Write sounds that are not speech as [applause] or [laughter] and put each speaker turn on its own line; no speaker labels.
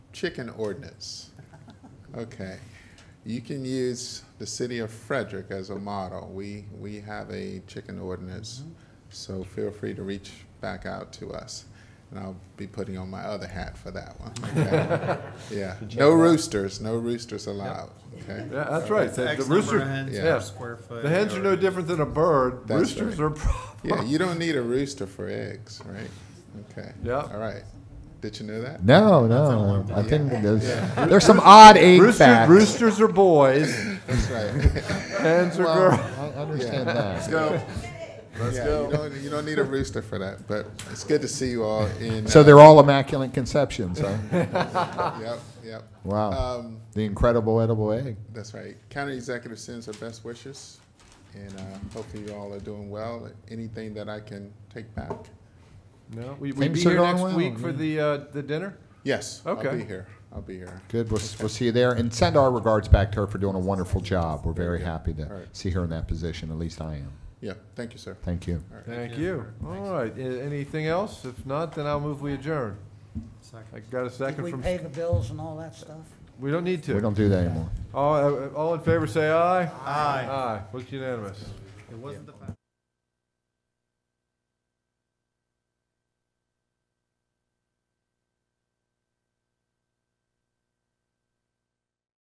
chicken ordinance. Okay. You can use the city of Frederick as a model. We, we have a chicken ordinance, so feel free to reach back out to us. And I'll be putting on my other hat for that one. okay? Yeah, no roosters, no roosters allowed,
[laughs]
okay?
Yeah, that's right. The- The
X number of
rooster,
hens
yeah.
per square foot.
the hens are no different than a bird.
That's
Roosters
right.
are. pro- [laughs]
Yeah, you don't need a rooster for eggs, right? Okay.
Yeah.
All right. Did you know that?
No, no. I think
Yeah.
there's there's some odd egg
Rooster,
facts.
roosters are boys,
That's right. [laughs]
hens are
Well,
girls.
I understand
Yeah.
that.
go. Let's go. You don't, you don't need a rooster for that, but it's good to see you all in.
So
uh,
they're all immaculate
[laughs]
conceptions, huh?
Yep, yep.
Wow.
Um,
The incredible edible egg.
that's right. County Executive sends her best wishes, and uh, hopefully you all are doing well. Anything that I can take back?
No, we we
Things
be
are
here
going
next
well,
week for
yeah.
the uh, the dinner.
Yes, I'll
Okay.
be here. I'll be here.
Good. We'll, we'll see you there. And send our regards back to her for doing a wonderful job. We're very happy to
All right.
see her in that position. At least I am.
Yeah, thank you, sir.
Thank you.
Thank you. All right. a- Anything else? If not, then I'll move we adjourn. I got a
Did
second
we
from.
pay the bills and all that stuff?
We don't need
We
to. uh,
don't do that anymore.
All, all in favor, say aye.
Aye.
Aye. Looks unanimous.
It wasn't the fact.